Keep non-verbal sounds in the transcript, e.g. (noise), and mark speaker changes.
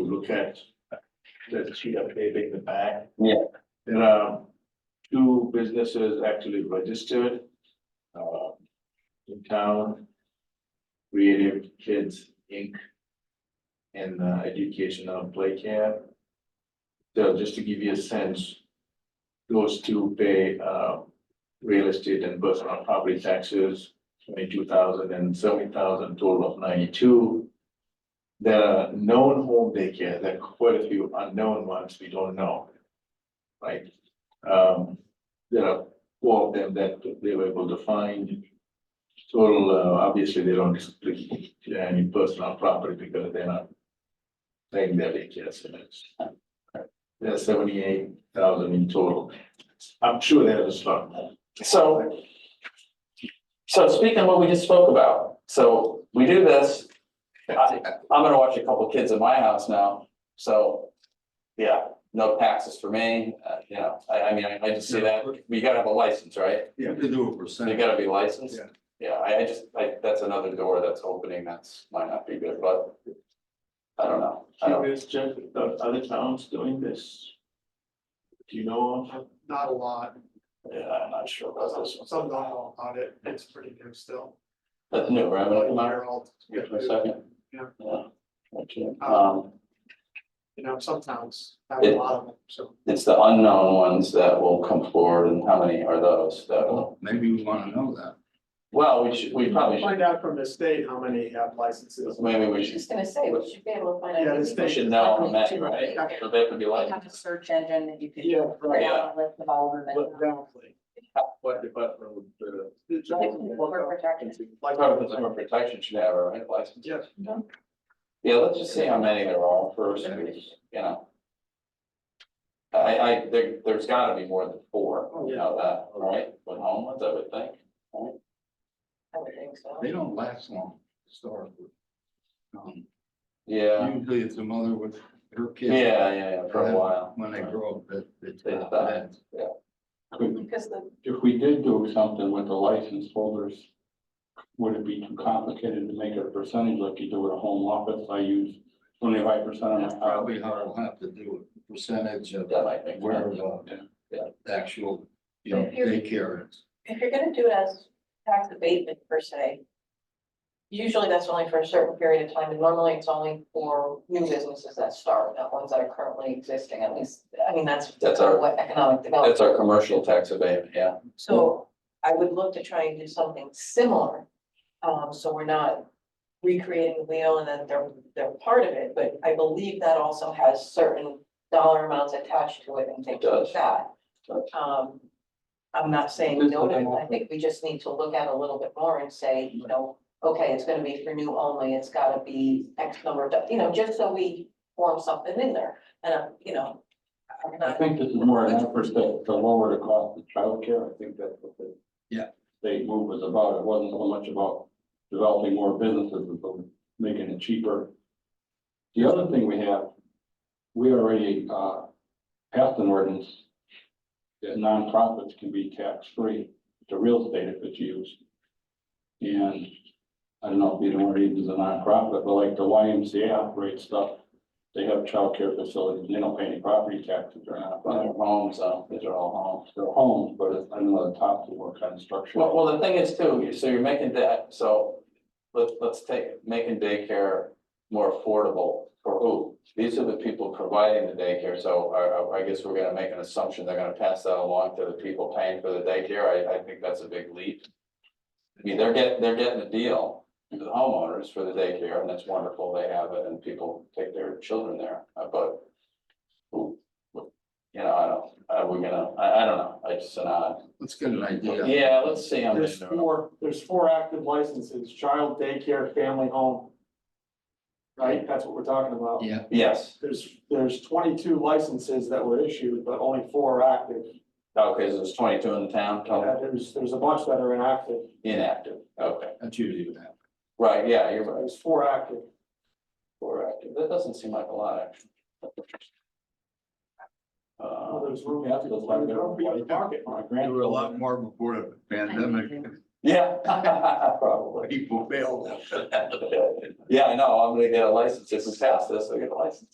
Speaker 1: look at the sheet updating the back.
Speaker 2: Yeah.
Speaker 1: There are two businesses actually registered uh, in town. Creative Kids Inc. and uh, Educational Play Camp. So just to give you a sense, those two pay uh, real estate and personal property taxes, twenty-two thousand and seventy thousand, total of ninety-two. There are known home daycare, there are quite a few unknown ones we don't know. Right? Um, there are four of them that they were able to find. Total, uh, obviously, they don't split any personal property because they're not paying their daycare service. There are seventy-eight thousand in total. I'm sure there's a lot more.
Speaker 2: So. So speaking of what we just spoke about, so we do this, I, I'm gonna watch a couple kids in my house now, so. Yeah, no taxes for me, uh, you know, I, I mean, I, I just see that, we gotta have a license, right?
Speaker 3: You have to do a
Speaker 2: You
Speaker 3: percent.
Speaker 2: gotta be licensed.
Speaker 3: Yeah.
Speaker 2: Yeah, I, I just, I, that's another door that's opening, that's, might not be good, but. I don't know, I don't,
Speaker 1: Curious, Jeff, if the other towns doing this? Do you know of?
Speaker 4: Not a lot,
Speaker 2: yeah, I'm not sure about this one,
Speaker 4: some don't know about it, it's pretty new still.
Speaker 2: that's new, right? But I'm not-
Speaker 4: Year old.
Speaker 2: Give it a second.
Speaker 4: Yeah.
Speaker 2: Yeah. Okay, um.
Speaker 4: Um, You know, some towns have a
Speaker 2: It-
Speaker 4: lot of them, so.
Speaker 2: It's the unknown ones that will come forward and how many are those that will,
Speaker 3: Maybe we wanna know that.
Speaker 2: well, we should, we probably should,
Speaker 4: Find out from the state how many have licenses.
Speaker 2: maybe we
Speaker 5: I was
Speaker 2: should,
Speaker 5: gonna say, we should be able to find out.
Speaker 4: Yeah, this
Speaker 2: we
Speaker 5: maybe
Speaker 2: should know on that,
Speaker 5: we can-
Speaker 2: right?
Speaker 4: Yeah.
Speaker 2: So they could be
Speaker 5: They
Speaker 2: like,
Speaker 5: have a search engine that you could.
Speaker 4: Yeah,
Speaker 5: put
Speaker 4: right.
Speaker 5: out a list of all of them.
Speaker 4: But definitely.
Speaker 1: What department would, uh,
Speaker 4: The general-
Speaker 5: Consumer protection.
Speaker 2: Oh, like our consumer protection should have, a right, license?
Speaker 4: Yes.
Speaker 2: Yeah, let's just see how many there are first, and we- you know. I, I, there, there's gotta be more than four,
Speaker 4: Oh,
Speaker 2: you know, that, right, with home ones, I would think.
Speaker 5: I would think so.
Speaker 3: They don't last long historically. Um,
Speaker 2: Yeah,
Speaker 3: Usually it's a mother with her kids.
Speaker 2: yeah, yeah, yeah, for a while.
Speaker 3: When they grow up, that, that's.
Speaker 2: They die.
Speaker 5: Because the,
Speaker 6: if we did do something with the license holders, would it be too complicated to make it a percentage like you do with a home office? I use twenty-five percent of my
Speaker 3: That's
Speaker 6: house.
Speaker 3: probably how we'll have to do it, percentage of
Speaker 2: That might make
Speaker 3: where
Speaker 2: sense.
Speaker 3: the,
Speaker 2: Yeah.
Speaker 3: the actual, you know,
Speaker 5: If you're-
Speaker 3: daycare is.
Speaker 5: if you're gonna do it as tax abatement per se, usually that's only for a certain period of time, and normally it's only for new businesses that start, not ones that are currently existing, at least, I mean, that's
Speaker 2: That's our-
Speaker 5: what economic development.
Speaker 2: That's our commercial tax abatement, yeah.
Speaker 5: So I would look to try and do something similar. Um, so we're not recreating the wheel and then they're, they're part of it, but I believe that also has certain dollar amounts attached to it and things
Speaker 2: It does.
Speaker 5: like that.
Speaker 2: It
Speaker 5: Um, I'm not saying
Speaker 6: Just
Speaker 5: no, to
Speaker 6: looking
Speaker 5: it. I
Speaker 6: at-
Speaker 5: think we just need to look at it a little bit more and say, you know, okay, it's gonna be for new only, it's gotta be X number, of do- you know, just so we form something in there. And, I'm, you know, I'm
Speaker 6: I
Speaker 5: not,
Speaker 6: think this is more an effort to, to lower the cost of childcare. I think that's what the.
Speaker 3: Yeah.
Speaker 6: State move was about. It wasn't so much about developing more businesses, but about making it cheaper. The other thing we have, we already, uh, passed an ordinance that nonprofits can be tax-free to real estate if it's used. And I don't know if you know what it is, a nonprofit, but like the YMCA operates stuff, they have childcare facilities, and they don't pay any property taxes, they're not,
Speaker 2: Well, they're homes, so
Speaker 6: these are all homes, they're homes, but it's under the top to work on structure.
Speaker 2: Well, well, the thing is too, you- so you're making that, so let's, let's take, making daycare more affordable for who? These are the people providing the daycare, so I, I, I guess we're gonna make an assumption they're gonna pass that along to the people paying for the daycare. I, I think that's a big leap. I mean, they're getting, they're getting a deal to the homeowners for the daycare and that's wonderful. They have it and people take their children there, uh, but who, who- you know, I don't, are we gonna, I, I don't know. I just, uh,
Speaker 3: Let's get an idea.
Speaker 2: yeah, let's see. how many
Speaker 4: There's
Speaker 2: there are.
Speaker 4: four, there's four active licenses, child daycare, family home. Right, that's what we're talking about.
Speaker 3: Yeah,
Speaker 2: Yes,
Speaker 4: There's, there's twenty-two licenses that were issued, but only four are active.
Speaker 2: okay, so there's twenty-two in the town, total
Speaker 4: Yeah, There's, there's a bunch that are inactive,
Speaker 2: inactive, okay,
Speaker 3: that's usually what happens.
Speaker 2: right, yeah, you're right,
Speaker 4: there's four active.
Speaker 2: four active, that doesn't seem like a lot, actually. Uh,
Speaker 4: Well, there's room.
Speaker 6: Yeah, that's like
Speaker 4: There's room for you to
Speaker 6: they're-
Speaker 4: market.
Speaker 6: My
Speaker 3: There were a
Speaker 6: grandson,
Speaker 3: lot more before the pandemic,
Speaker 2: (laughs) yeah, probably.
Speaker 6: (laughs)
Speaker 3: people bailed out.
Speaker 2: (laughs) Yeah, I know, I'm gonna get a license, if we pass this, I get a license.